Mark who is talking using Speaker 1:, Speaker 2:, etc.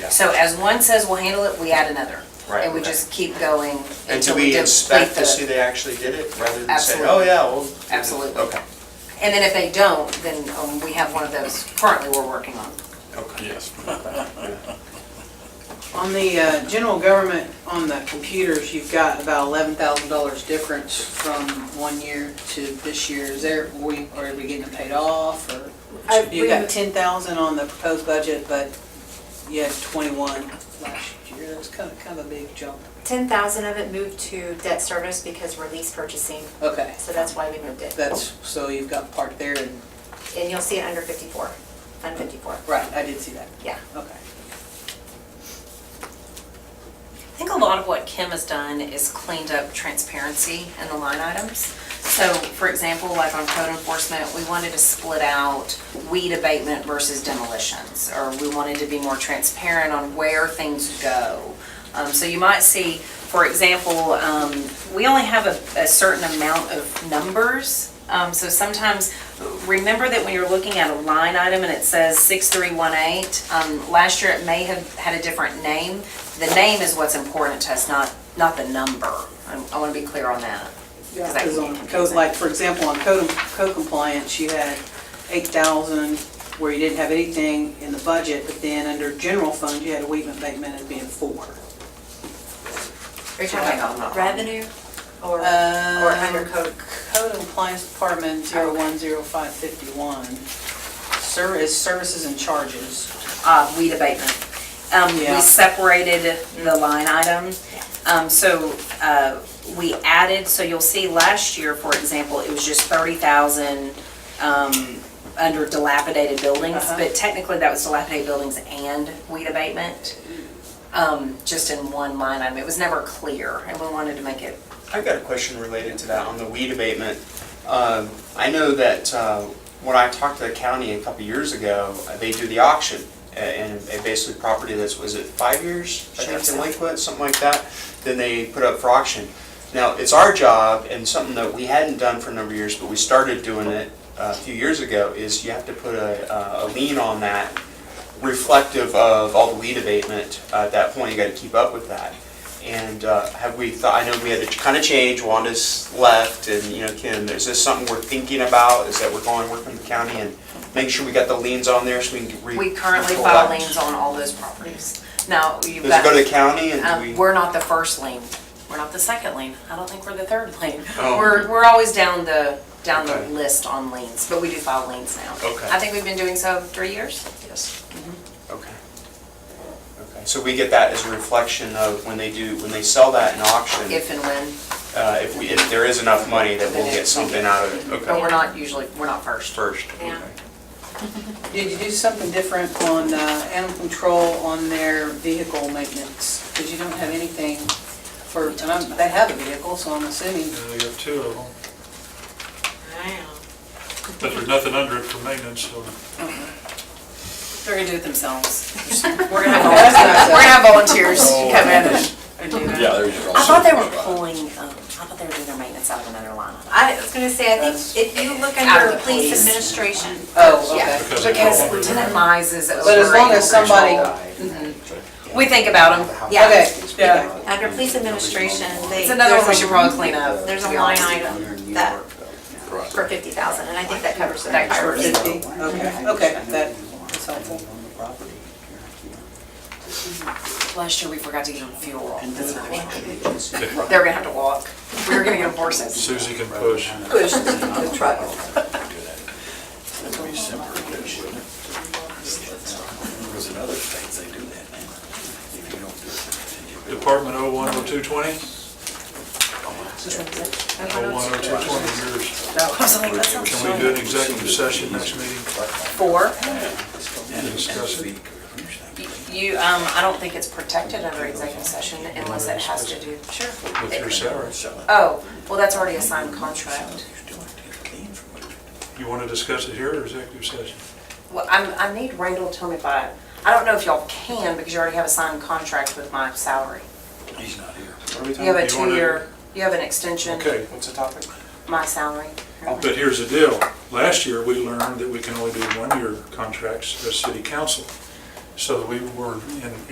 Speaker 1: Yeah.
Speaker 2: So as one says we'll handle it, we add another.
Speaker 1: Right,
Speaker 2: And we
Speaker 1: okay.
Speaker 2: just keep going
Speaker 1: And do
Speaker 2: until
Speaker 1: we
Speaker 2: we deplete
Speaker 1: inspect to see
Speaker 2: the.
Speaker 1: they actually did it rather than say,
Speaker 2: Absolutely.
Speaker 1: oh, yeah, well. we did it."
Speaker 2: Absolutely.
Speaker 1: Okay,
Speaker 2: And then if they don't, then um, we have one of those currently we're working on.
Speaker 1: okay.
Speaker 3: Yes.
Speaker 4: On the uh, general government, on the computers, you've got about eleven thousand dollars difference from one year to this year. Is there, we, are we getting it paid off or?
Speaker 5: I- we-
Speaker 4: You've got ten thousand on the proposed budget, but you had twenty-one last year. That's kind of, kind of a big jump.
Speaker 5: 10,000 of it moved to debt service because we're lease purchasing,
Speaker 4: Okay,
Speaker 5: so that's why we moved it.
Speaker 4: that's, so you've got part there and,
Speaker 5: And you'll see it under 54, Fund 54.
Speaker 4: right, I did see that.
Speaker 5: Yeah.
Speaker 4: Okay.
Speaker 2: I think a lot of what Kim has done is cleaned up transparency in the line items. So, for example, like on code enforcement, we wanted to split out weed abatement versus demolitions, or we wanted to be more transparent on where things go. Um, So you might see, for example, um, we only have a a certain amount of numbers. Um, So sometimes, remember that when you're looking at a line item and it says 6318, um, last year it may have had a different name. The name is what's important to us, not, not the number. I'm- I want to be clear on that.
Speaker 4: Yeah, um,
Speaker 2: 'cause that
Speaker 4: because
Speaker 2: can get
Speaker 4: on code,
Speaker 2: confusing.
Speaker 4: like, for example, on code, code compliance, you had eight thousand where you didn't have anything in the budget, but then under general fund, you had a Weedman abatement as being four.
Speaker 5: Are you talking about revenue or, or under
Speaker 4: Um,
Speaker 5: code?
Speaker 4: Code compliance department, zero one zero five fifty-one. Service, services and charges.
Speaker 2: uh, weed abatement. Um,
Speaker 4: Yeah.
Speaker 2: We separated the line item. Um, So uh, we added, so you'll see last year, for example, it was just 30,000 um, under dilapidated buildings,
Speaker 4: Uh-huh.
Speaker 2: but technically that was dilapidated buildings and weed abatement, um, just in one line item. It was never clear, and we wanted to make it,
Speaker 6: I've got a question related to that on the weed abatement. Um, I know that uh, when I talked to the county a couple years ago, uh, they do the auction. a- And a basically property that's, was it five years, I think
Speaker 2: Sure.
Speaker 6: delinquent, something like that, then they put up for auction. Now, it's our job and something that we hadn't done for a number of years, but we started doing it uh, a few years ago, is you have to put a uh, a lien on that reflective of all the weed abatement. Uh, At that point, you gotta keep up with that. And uh, have we thought, I know we had to kind of change, Wanda's left, and, you know, Kim, is this something we're thinking about? Is that we're going, working with the county and making sure we got the liens on there so we can re-
Speaker 2: we currently file
Speaker 6: collect?
Speaker 2: liens on all those properties. Now, you've
Speaker 6: Does it
Speaker 2: got.
Speaker 6: go to the county and do
Speaker 2: Um,
Speaker 6: we?
Speaker 2: we're not the first lane. We're not the second lane. I don't think we're the third lane.
Speaker 6: Oh.
Speaker 2: We're, we're always down the, down the
Speaker 6: Okay.
Speaker 2: list on lanes, but we do file lanes now.
Speaker 6: Okay.
Speaker 2: I think we've been doing so three years.
Speaker 6: Yes. Okay. Okay, so we get that as a reflection of when they do, when they sell that in auction,
Speaker 2: If and when,
Speaker 6: uh, if we, if there is enough money that we'll get something out of it.
Speaker 2: but we're
Speaker 6: Okay.
Speaker 2: not usually, we're not first.
Speaker 6: First,
Speaker 5: Yeah.
Speaker 6: okay.
Speaker 4: Did you do something different on uh, animal control on their vehicle maintenance? Because you don't have anything for, and I'm- they have a vehicle, so I'm assuming
Speaker 3: Yeah, we got two of them, but there's nothing under it for maintenance, so.
Speaker 2: They're gonna do it themselves.
Speaker 4: We're gonna have,
Speaker 2: We're gonna have volunteers come in and- and do that.
Speaker 7: Yeah, there's also.
Speaker 2: I thought they were pulling, um, I thought they were doing their maintenance out of another line. item.
Speaker 5: I was going to say, I think if you look
Speaker 2: Out of
Speaker 5: under
Speaker 2: the
Speaker 5: police
Speaker 2: police.
Speaker 5: administration,
Speaker 4: Oh, okay.
Speaker 5: Yeah.
Speaker 3: because they fall
Speaker 2: Because
Speaker 3: under
Speaker 2: Lieutenant
Speaker 3: that.
Speaker 2: Mize is over.
Speaker 4: But as long as
Speaker 2: animal control.
Speaker 4: somebody,
Speaker 2: We think about them.
Speaker 5: Yeah.
Speaker 4: okay, yeah.
Speaker 5: under police administration, they.
Speaker 2: It's another one we
Speaker 5: there's a-
Speaker 2: should probably clean up.
Speaker 5: There's a
Speaker 2: to be
Speaker 5: line
Speaker 2: honest.
Speaker 5: item that, for 50,000, and I think that covers the
Speaker 2: That
Speaker 5: fire.
Speaker 2: covers
Speaker 4: it. Okay, okay, that- that's helpful.
Speaker 2: Last year, we forgot to give them fuel. That's another one. They're gonna have to walk. We were gonna get them horses.
Speaker 3: Susie can push.
Speaker 4: Push the truck.
Speaker 7: There's another states they do that now. If you don't do it, they get rid of
Speaker 3: Department oh one oh two twenty, oh one oh two twenty, yours. Can we do an executive session next meeting
Speaker 2: Four?
Speaker 3: and discuss it?
Speaker 2: You, um, I don't think it's protected under executive session unless it has to do, sure.
Speaker 3: with your salary?
Speaker 2: Oh, well, that's already a signed contract.
Speaker 3: You want to discuss it here or executive session?
Speaker 2: Well, I'm, I need Randall to tell me if I, I don't know if y'all can because you already have a signed contract with my salary.
Speaker 7: He's not here.
Speaker 6: What are we
Speaker 2: You
Speaker 6: talking,
Speaker 2: have a
Speaker 3: You wanna-
Speaker 2: two-year, you have an extension,
Speaker 3: Okay,
Speaker 6: what's the topic?
Speaker 2: my salary.
Speaker 3: but here's the deal. Last year, we learned that we can only do one-year contracts as city council. So we were in